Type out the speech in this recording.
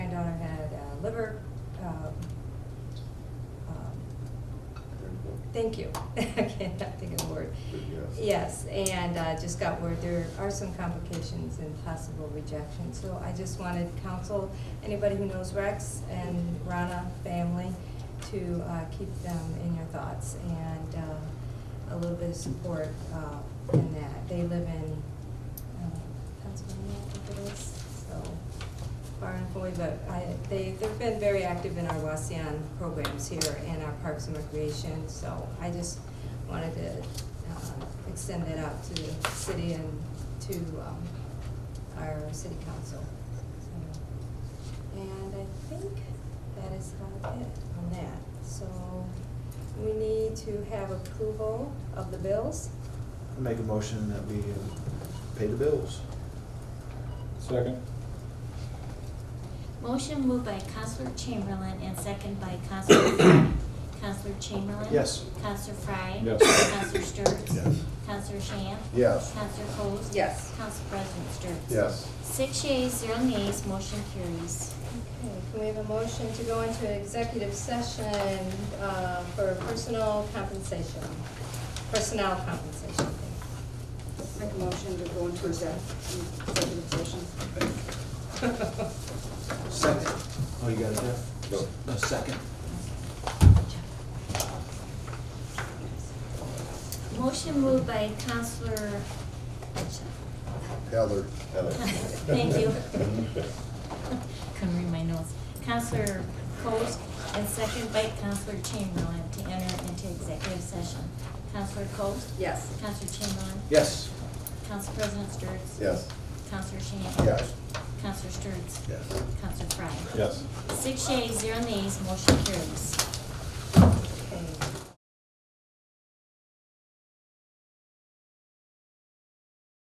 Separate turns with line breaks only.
uh, liver, um, um, Thank you. I can't think of the word.
Good
Yes, and uh, just got word, there are some complications and possible rejection. So I just wanted council, anybody who knows Rex and Rana family, to uh, keep them in your thoughts and uh, a little bit of support uh, in that. They live in uh, Pennsylvania, I think it is, so far and away, but I, they, they've been very active in our Waseon programs here and our Parks and Recreation, so I just wanted to, uh, extend that out to the city and to, um, our city council. So, And I think that is about it on that, so we need to have approval of the bills.
Make a motion that we uh, pay the bills.
Second.
Motion moved by Counselor Chamberlain and second by Counselor Frye. Counselor Chamberlain?
Yes.
Counselor Frye?
Yes.
Counselor Sturts?
Yes.
Counselor Shamp?
Yes.
Counselor Coats?
Yes.
Counsel President Sturts?
Yes.
Six yeas, zero nays, motion carries.
Okay, can we have a motion to go into executive session uh, for personal compensation? Personnel compensation.
Make a motion to go into exec- executive session.
Second. Oh, you got it there?
No.
No, second.
Motion moved by Counselor,
Heather.
Thank you. couldn't read my notes. Counselor Coats and second by Counselor Chamberlain to enter into executive session. Counselor Coats?
Yes.
Counselor Chamberlain?
Yes.
Council President Sturts?
Yes.
Counselor Shamp?
Yes.
Counselor Sturts?
Yes.
Counselor Frye?
Yes.
Six yeas, zero nays, motion carries.